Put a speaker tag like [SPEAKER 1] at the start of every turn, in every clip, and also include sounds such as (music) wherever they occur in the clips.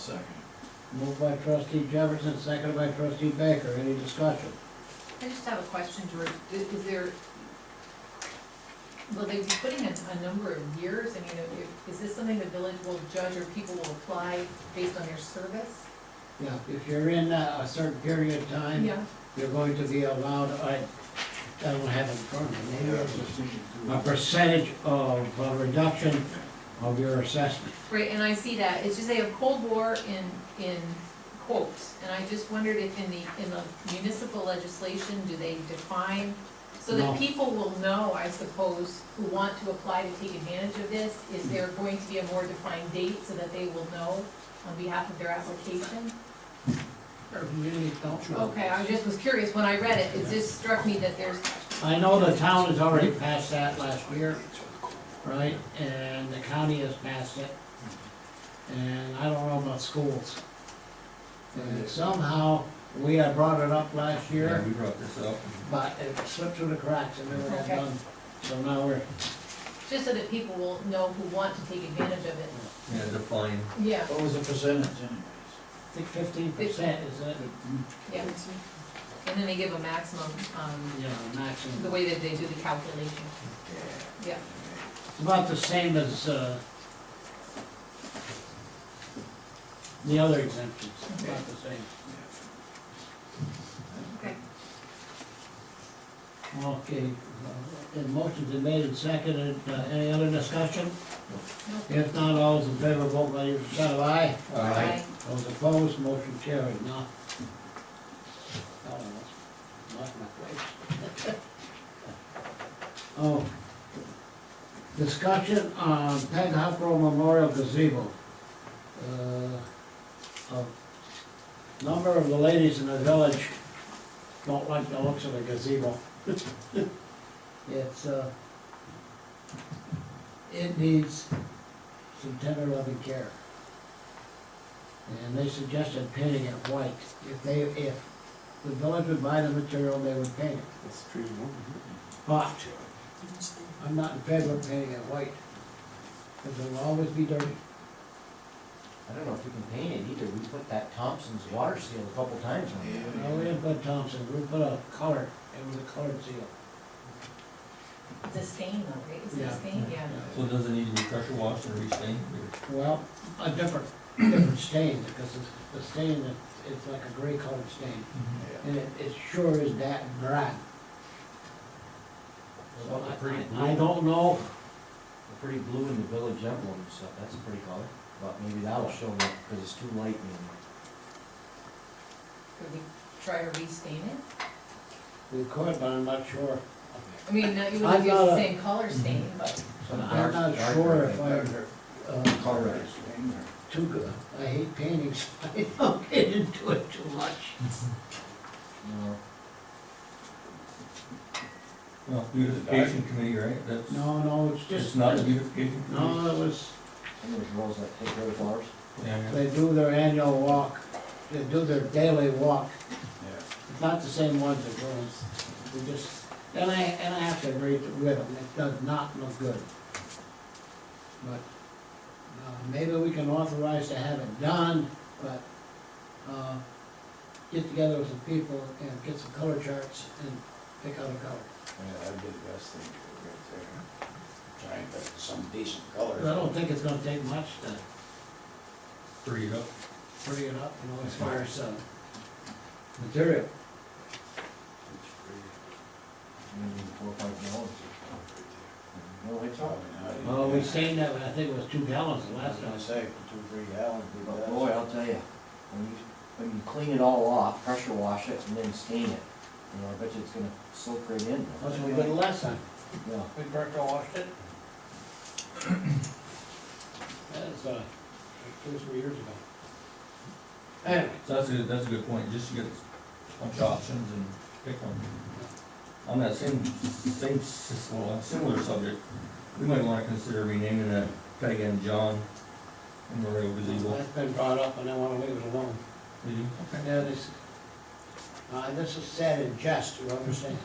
[SPEAKER 1] second.
[SPEAKER 2] Moved by trustee Jefferson, seconded by trustee Baker. Any discussion?
[SPEAKER 3] I just have a question, George, I- is there, will they be putting a, a number of years, I mean, if- is this something the village will judge or people will apply based on their service?
[SPEAKER 2] Yeah, if you're in a a certain period of time,
[SPEAKER 3] Yeah,
[SPEAKER 2] you're going to be allowed, I, I don't have it in front of me, maybe it's a- a percentage of uh, reduction of your assessment.
[SPEAKER 3] right, and I see that, it's just they have Cold War in, in quotes, and I just wondered if in the, in the municipal legislation, do they define? So
[SPEAKER 2] No.
[SPEAKER 3] that people will know, I suppose, who want to apply to take advantage of this, is there going to be a more defined date so that they will know on behalf of their application?
[SPEAKER 2] Really don't know.
[SPEAKER 3] Okay, I just was curious, when I read it, it just struck me that there's,
[SPEAKER 2] I know the town has already passed that last year, right, and the county has passed it. And I don't know about schools. And somehow, we had brought it up last
[SPEAKER 4] Yeah,
[SPEAKER 2] year,
[SPEAKER 4] we brought this up.
[SPEAKER 2] but it slipped through the cracks and never got
[SPEAKER 3] Okay.
[SPEAKER 2] done. So now we're,
[SPEAKER 3] just so that people will know who want to take advantage of it.
[SPEAKER 4] Yeah, define.
[SPEAKER 3] Yeah,
[SPEAKER 1] What was the percentage anyways?
[SPEAKER 2] I think fifteen percent is it,
[SPEAKER 3] yeah. And then they give a maximum, um,
[SPEAKER 2] you know,
[SPEAKER 3] the
[SPEAKER 2] maximum.
[SPEAKER 3] way that they do the calculation. Yeah,
[SPEAKER 2] It's about the same as, uh, the other exemptions, about the same.
[SPEAKER 3] okay.
[SPEAKER 2] Okay, uh, the motion's been made and seconded, Uh, any other discussion?
[SPEAKER 3] No.
[SPEAKER 2] If not, all those in favor, vote by your side of aye.
[SPEAKER 4] uh,
[SPEAKER 3] Aye.
[SPEAKER 2] Those opposed, motion carried, now. Oh, that's Not my place. (laughs) Oh. Discussion on Peg Huckrow Memorial gazebo. Uh, A number of the ladies in the village don't like the looks of the gazebo. (laughs) It's, uh, it needs some tender loving care. And they suggested painting it white. If they, if the village would buy the material, they would paint it.
[SPEAKER 1] That's true.
[SPEAKER 2] But I'm not in favor of painting it white, because it'll always be dirty.
[SPEAKER 5] I don't know if we can paint it either, we put that Thompson's water seal a couple times on it.
[SPEAKER 2] Now, we didn't put Thompson, we put a color, it was a colored seal.
[SPEAKER 3] It's a stain though, right? Is it
[SPEAKER 2] Yeah.
[SPEAKER 3] a stain? Yeah.
[SPEAKER 4] So does it need to be pressure washed and restained?
[SPEAKER 2] Well, a different, different stain, because it's- the stain, it- it's like a gray colored stain, and it, it sure is that bad.
[SPEAKER 5] What about the pretty blue?
[SPEAKER 2] I don't know,
[SPEAKER 5] The pretty blue in the village emblem and stuff, that's a pretty color, but maybe that'll show up, because it's too light maybe.
[SPEAKER 3] Could we try to restain it?
[SPEAKER 2] we could, but I'm not sure.
[SPEAKER 3] I mean, not you
[SPEAKER 2] I'm
[SPEAKER 3] would use
[SPEAKER 2] not
[SPEAKER 3] the
[SPEAKER 2] a-
[SPEAKER 3] same color stain, but,
[SPEAKER 5] Some
[SPEAKER 2] I'm
[SPEAKER 5] dark-
[SPEAKER 2] not
[SPEAKER 5] darker,
[SPEAKER 2] sure
[SPEAKER 5] I
[SPEAKER 2] if
[SPEAKER 5] think.
[SPEAKER 2] I, uh,
[SPEAKER 5] Color it.
[SPEAKER 2] too good, I hate paintings, (laughs) I don't get into it too much.
[SPEAKER 5] No.
[SPEAKER 4] Well, beautification committee, right? That's,
[SPEAKER 2] No, no, it's
[SPEAKER 4] it's
[SPEAKER 2] just,
[SPEAKER 4] not a
[SPEAKER 2] no,
[SPEAKER 4] beautification committee.
[SPEAKER 2] it was,
[SPEAKER 5] And there's rows like take care of flowers.
[SPEAKER 4] Yeah, yeah.
[SPEAKER 2] they do their annual walk, they do their daily walk, It's not the same ones that goes, we just, and I, and I have to agree with them, it does not look good. But, uh, maybe we can authorize to have it done, but, uh, get together with some people and get some color charts and pick out a color.
[SPEAKER 1] Yeah, that'd be the best thing to do right there. Try and get some decent
[SPEAKER 2] But I
[SPEAKER 1] color.
[SPEAKER 2] don't think it's gonna take much to
[SPEAKER 4] Free it up.
[SPEAKER 2] pretty it up, you know, as far as, uh, material.
[SPEAKER 5] maybe four or five dollars.
[SPEAKER 1] No, it's all.
[SPEAKER 2] Well, we stained that, I think it was two gallons the
[SPEAKER 1] I was
[SPEAKER 2] last
[SPEAKER 1] gonna
[SPEAKER 2] time.
[SPEAKER 1] say, for two, three gallons, we
[SPEAKER 5] But
[SPEAKER 1] got.
[SPEAKER 5] boy, I'll tell you, when you, when you clean it all off, pressure wash it and then stain it, you know, I bet you it's gonna soak right in.
[SPEAKER 2] That's what we did last time.
[SPEAKER 5] Yeah.
[SPEAKER 2] We burnt or washed it? That is, uh, like two, or three years ago. Anyway,
[SPEAKER 4] So that's a, that's a good point, just to get a bunch of options and pick one. On that same, same, s- well, similar subject, we might wanna consider renaming that Peg and John Memorial Gazebo.
[SPEAKER 2] that's been brought up and I wanna leave it alone.
[SPEAKER 4] Did you?
[SPEAKER 2] And then this, uh, this is said in jest, you understand?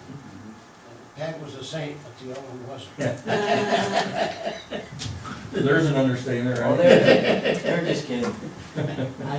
[SPEAKER 2] Peg was a saint, but the other one wasn't.
[SPEAKER 4] (laughs) There's an understatement, right?
[SPEAKER 5] Oh, they're, they're just kidding.